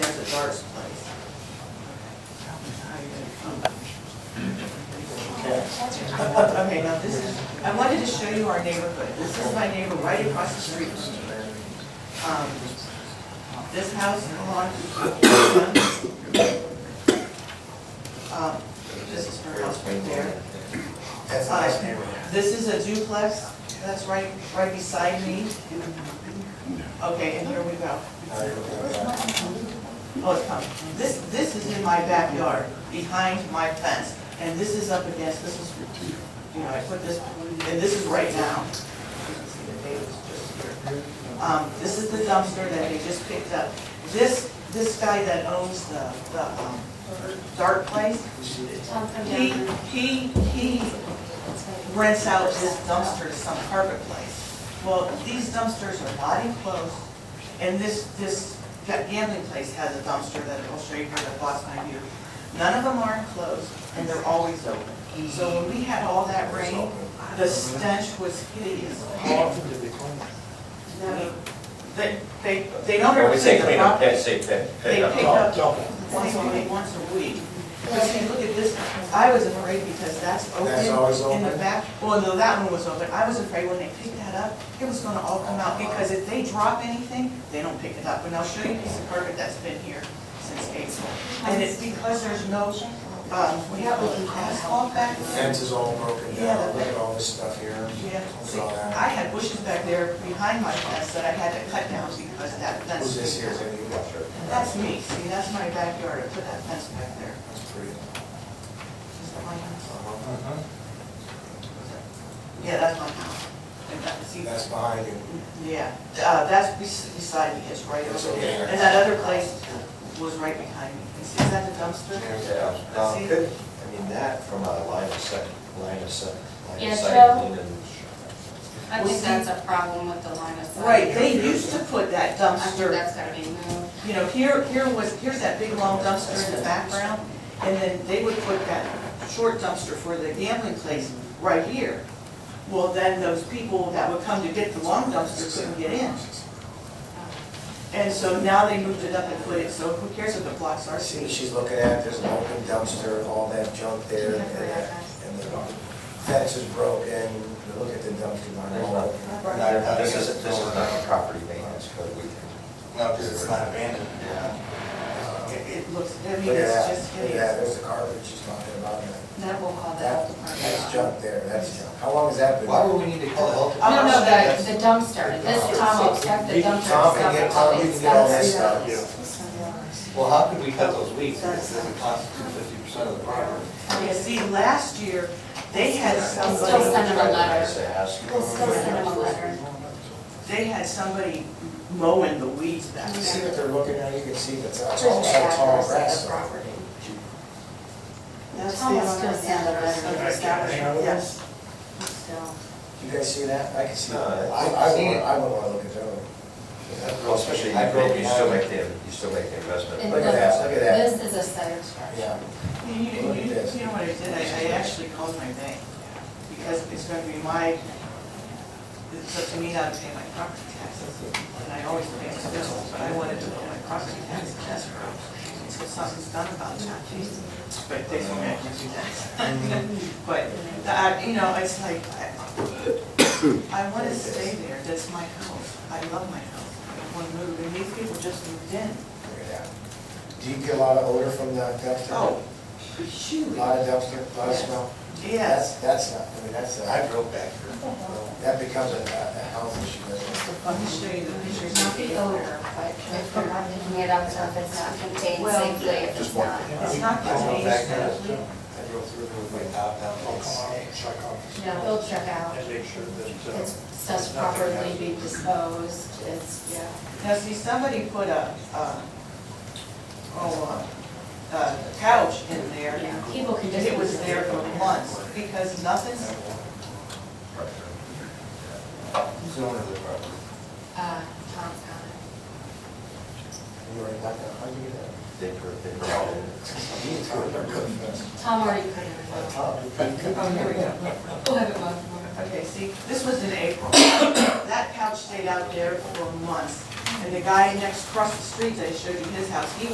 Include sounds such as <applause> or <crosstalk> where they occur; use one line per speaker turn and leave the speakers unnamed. Dar's place. <laughs> Okay, now this is, I wanted to show you our neighborhood. This is my neighbor right across the street from me. Um, This house belongs to Uh, This is her house right there. Uh,
That's a nice neighborhood.
This is a duplex that's right, right beside me. Okay, and here we go.
Uh,
Oh, it's coming. This, this is in my backyard, behind my fence, and this is up against, this is, you know, I put this, and this is right now. You can see the neighbors just here. Um, this is the dumpster that they just picked up. This, this guy that owns the, the, um, dark place,
Tom, come
he,
down.
he, he rents out this dumpster to some carpet place. Well, these dumpsters are not enclosed, and this, this gambling place has a dumpster that I'll show you here that blocks my view. None of them are enclosed, and they're always open. So when we had all that rain, the stench was hideous. No, They, they, they don't
When
ever
we say
take
clean
the
up,
property.
that's it, that,
They
that,
pick
oh,
up once a week, once a week. But see, look at this, one. I was afraid because that's open.
That's always
In the
open.
back, well, no, that one was open. I was afraid when they picked that up, it was gonna all come out, because if they drop anything, they don't pick it up. And I'll show you a piece of carpet that's been here since April. And it's because there's no, um, we have a asphalt back
The
there.
fence is all broken down, look at all this stuff here.
Yeah,
Look
see,
at all
I
that.
had bushes back there behind my fence that I had to cut down because that fence.
Who's this here, is that you?
That's me, see, that's my backyard, I put that fence back there.
That's pretty.
Is that my house?
Uh-huh.
Yeah, that's my house. And that, see,
That's behind you.
yeah, uh, that's bes- beside me, it's right
It's
over
over
there.
there.
And that other place was right behind me. You see, is that the dumpster?
yeah,
Uh,
Let's
now,
see.
could, I mean, that from a line of sight, line of sight, line
Yeah,
of
Joe.
sight, lean and.
I think that's a problem with the line of sight.
Right, they used to put that
I think
dumpster,
that's gotta be moved.
you know, here, here was, here's that big long dumpster in the background, and then they would put that short dumpster for the gambling place right here. Well, then those people that would come to get the long dumpster couldn't get in. And so now they moved it up and put it, so who cares if it blocks our
See,
street?
she's looking at, there's an open dumpster, all that junk there, and that- and the fence is broken, look at the dumpster, not all open.
No, This is, this is not a property maintenance code, we can.
No, because it's not abandoned.
Yeah.
Uh,
It it looks, I
Look
mean,
at
it's
that,
just
look at that,
hideous.
there's the garbage she's talking about, that-
That will call that.
that, that's junk there, that's junk. How long has that been?
Why would we need to call the health?
No, no,
department?
the, the dumpster, this Tom will check the
You
dumpster
can Tom
stuff
and
and
get,
all
Tom, you
the
can get all that
stuff.
stuff.
Well, how could we cut those weeds? Because it doesn't constitute fifty percent of the property.
Yeah, see, last year, they had
Still
somebody,
send them a letter.
Say, ask.
We'll still send him a letter.
they had somebody mowing the weeds back
You see
there.
what they're looking at, you can see that's, that's
Just
all
the
that tall
address
grass.
of the
though.
property.
That's the
Tom will still
owner.
send a letter of establishment,
Yes,
still.
You guys see that? I can see
No,
that. I,
I-
I wouldn't, I wouldn't wanna look at that one.
Well, especially, you make- you still make the, you still make the investment.
And
Look at
the-
that, look at that.
This is a site structure.
Yeah.
you, you, you you know what I did, I, I actually called my bank, because it's gonna be my, it's up to me not to pay my property taxes, and I always pay my bills, but I wanted to put my property taxes in escrow, so something's done about that, but they told me I can do that. <laughs> But, I, you know, it's like, I- I wanna stay there, that's my house, I love my house, I wanna move, and these people just moved in.
Look at that. Do you get a lot of odor from the dumpster?
Oh,
A
shoot.
lot of dumpster, a lot of
Yes.
smell?
Yes.
That's, that's not, I mean, that's,
I
a-
drove back here.
that becomes a, a a health issue, doesn't it?
Let me show you the pictures.
Not the owner, but from not picking it up, so if it's not contained
Well,
safely, if it's not.
It's not
I drove
contained,
back there.
sadly.
I drove through there with my top down.
No, he'll check out.
And make sure that, uh,
It's stuff's properly be disposed, it's, yeah.
Now, see, somebody put a, uh, oh, uh, a couch in there.
Yeah, people can
And
just. Uh,
it was there for months because nothing's,
Zone of the property.
Uh, Tom's got
You already got that, how do you get that?
They, pro- they provided.
You need to put it on good fence.
it. Tom already put it in.
Tom, you couldn't-
oh, here we go.
We'll have it both tomorrow.
Okay, see, this was in April. That couch stayed out there for months. And the guy next across the street, that I showed you his house, he